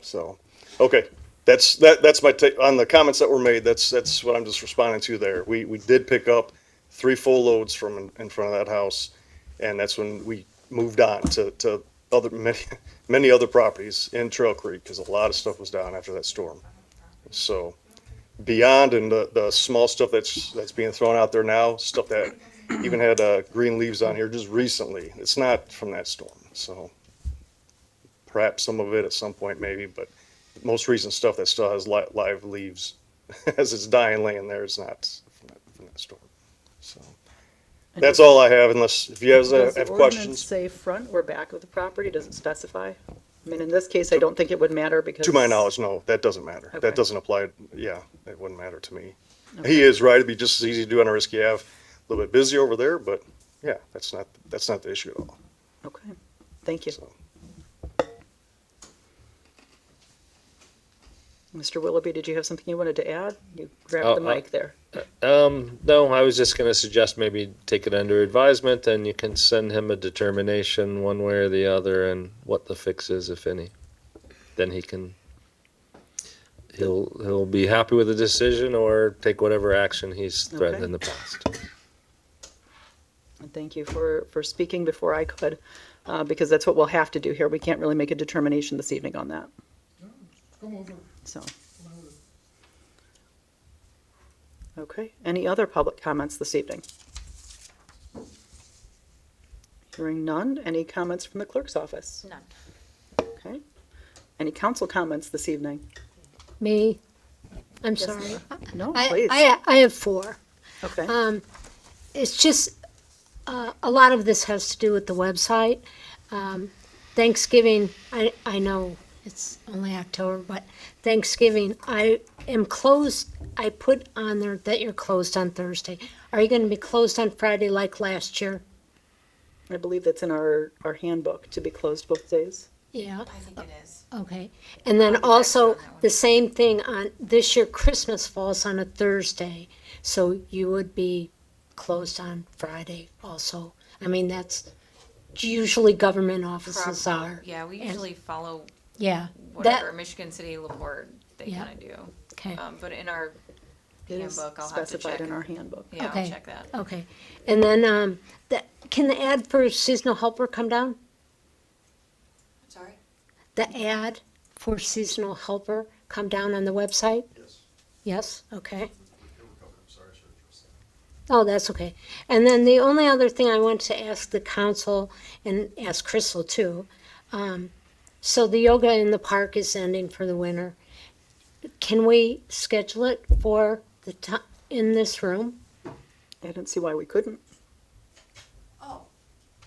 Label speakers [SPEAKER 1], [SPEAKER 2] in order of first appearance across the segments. [SPEAKER 1] So, okay, that's, that, that's my take, on the comments that were made, that's, that's what I'm just responding to there. We, we did pick up three full loads from in, in front of that house, and that's when we moved on to, to other, many, many other properties in Trail Creek, because a lot of stuff was down after that storm. So, beyond and the, the small stuff that's, that's being thrown out there now, stuff that even had, uh, green leaves on here just recently, it's not from that storm, so perhaps some of it at some point maybe, but most recent stuff that still has li- live leaves as it's dying laying there is not from that, from that storm. So that's all I have unless if you guys
[SPEAKER 2] Does
[SPEAKER 1] have
[SPEAKER 2] the
[SPEAKER 1] have
[SPEAKER 2] ordinance
[SPEAKER 1] questions,
[SPEAKER 2] say front or back of the property? Does it specify? I mean, in this case, I don't think it would matter because.
[SPEAKER 1] to my knowledge, no, that doesn't matter.
[SPEAKER 2] Okay.
[SPEAKER 1] That doesn't apply. Yeah, it wouldn't matter to me. He is right. It'd be just as easy to do on a risky Ave. A little bit busy over there, but yeah, that's not, that's not the issue at all.
[SPEAKER 2] Okay, thank you.
[SPEAKER 1] So.
[SPEAKER 2] Mr. Willoughby, did you have something you wanted to add? You
[SPEAKER 3] Oh,
[SPEAKER 2] grabbed the
[SPEAKER 3] uh,
[SPEAKER 2] mic there.
[SPEAKER 3] Um, no, I was just going to suggest maybe take it under advisement and you can send him a determination one way or the other and what the fix is, if any. Then he can, he'll, he'll be happy with the decision or take whatever action he's threatened
[SPEAKER 2] Okay.
[SPEAKER 3] in the past.
[SPEAKER 2] And thank you for, for speaking before I could, uh, because that's what we'll have to do here. We can't really make a determination this evening on that. So. Okay, any other public comments this evening? Hearing none, any comments from the clerk's office?
[SPEAKER 4] None.
[SPEAKER 2] Okay. Any council comments this evening?
[SPEAKER 5] Me? I'm sorry.
[SPEAKER 2] No,
[SPEAKER 5] I,
[SPEAKER 2] please.
[SPEAKER 5] I, um, I have four.
[SPEAKER 2] Okay,
[SPEAKER 5] It's just, uh, a lot of this has to do with the website. Um, Thanksgiving, I, I know it's only October, but Thanksgiving, I am closed. I put on there that you're closed on Thursday. Are you gonna be closed on Friday like last year?
[SPEAKER 2] I believe that's in our, our handbook, to be closed both days.
[SPEAKER 5] Yeah.
[SPEAKER 4] I think it is.
[SPEAKER 5] Okay, and then
[SPEAKER 4] you
[SPEAKER 5] also,
[SPEAKER 4] on that one.
[SPEAKER 5] the same thing on, this year Christmas falls on a Thursday, so you would be closed on Friday also. I mean, that's usually government offices
[SPEAKER 4] Prob-
[SPEAKER 5] are.
[SPEAKER 4] Yeah, we
[SPEAKER 5] and-
[SPEAKER 4] usually follow
[SPEAKER 5] Yeah,
[SPEAKER 4] whatever
[SPEAKER 5] that,
[SPEAKER 4] Michigan City Laporte they
[SPEAKER 5] Yeah.
[SPEAKER 4] kind of do.
[SPEAKER 5] okay,
[SPEAKER 4] Um, but in our
[SPEAKER 2] It is
[SPEAKER 4] handbook, I'll have to
[SPEAKER 2] specified
[SPEAKER 4] check.
[SPEAKER 2] in our handbook.
[SPEAKER 4] Yeah, I'll
[SPEAKER 5] Okay.
[SPEAKER 4] check that.
[SPEAKER 5] okay. And then, um, that, can the ad for seasonal helper come down?
[SPEAKER 4] Sorry?
[SPEAKER 5] The ad for seasonal helper come down on the website?
[SPEAKER 1] Yes.
[SPEAKER 5] Yes, okay.
[SPEAKER 1] sorry, sir.
[SPEAKER 5] Oh, that's okay. And then the only other thing I want to ask the council and ask Crystal too. Um, so the yoga in the park is ending for the winter. Can we schedule it for the ti in this room?
[SPEAKER 2] I didn't see why we couldn't.
[SPEAKER 4] Oh,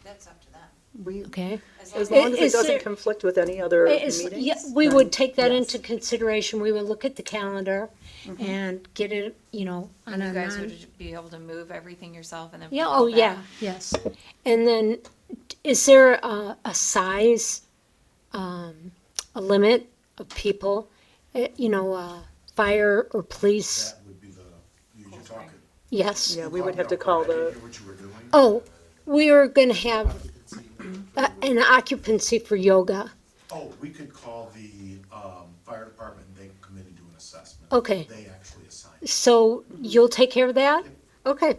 [SPEAKER 4] that's up to them.
[SPEAKER 2] We,
[SPEAKER 5] Okay.
[SPEAKER 2] As
[SPEAKER 4] As long
[SPEAKER 2] long as
[SPEAKER 5] Is
[SPEAKER 2] it doesn't
[SPEAKER 5] there-
[SPEAKER 2] conflict with any other
[SPEAKER 5] It's-
[SPEAKER 2] meetings.
[SPEAKER 5] yeah, we
[SPEAKER 2] then
[SPEAKER 5] would take that
[SPEAKER 2] yes.
[SPEAKER 5] into consideration. We would look at the calendar and get it, you know, on
[SPEAKER 4] and
[SPEAKER 5] a
[SPEAKER 4] you guys
[SPEAKER 5] non.
[SPEAKER 4] would be able to move everything yourself and then.
[SPEAKER 5] Yeah,
[SPEAKER 4] put it
[SPEAKER 5] oh,
[SPEAKER 4] back.
[SPEAKER 5] yeah, yes. And then, is there a, a size, um, a limit of people? Eh, You know, uh, fire or police?
[SPEAKER 6] That would be the, you you're talking.
[SPEAKER 5] Yes.
[SPEAKER 2] Yeah, we would have to call
[SPEAKER 6] I didn't
[SPEAKER 2] the,
[SPEAKER 6] hear what you were doing.
[SPEAKER 5] Oh, we are gonna have uh, an occupancy for yoga.
[SPEAKER 6] Oh, we could call the, um, fire department, they can come in and do an assessment.
[SPEAKER 5] Okay.
[SPEAKER 6] They actually assign.
[SPEAKER 5] So you'll take care of that? Okay,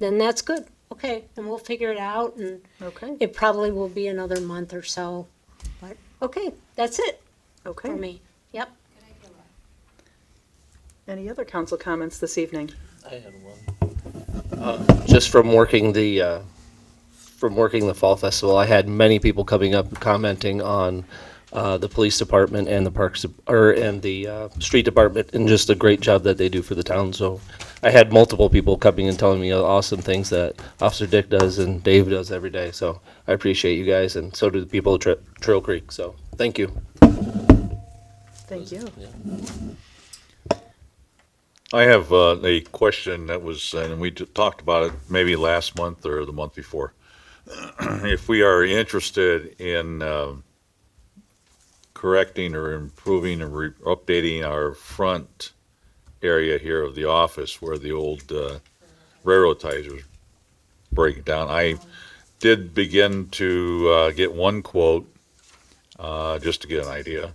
[SPEAKER 5] then that's good. Okay, and we'll figure it out and
[SPEAKER 2] okay,
[SPEAKER 5] it probably will be another month or so. But, okay, that's it for
[SPEAKER 2] okay.
[SPEAKER 5] me. Yep.
[SPEAKER 2] Any other council comments this evening?
[SPEAKER 7] I had one. Uh, Just from working the, uh, from working the Fall Festival, I had many people coming up commenting on uh, the police department and the parks, or, and the uh, street department, and just the great job that they do for the town, so I had multiple people coming and telling me all the awesome things that Officer Dick does and Dave does every day, so I appreciate you guys, and so do the people at Tra- Trail Creek, so, thank you.
[SPEAKER 2] Thank you.
[SPEAKER 8] I have uh, a question that was, and we t- talked about it maybe last month or the month before. If we are interested in um, correcting or improving or re- updating our front area here of the office where the old uh, railroad ties are breaking down, I did begin to uh, get one quote, uh, just to get an idea.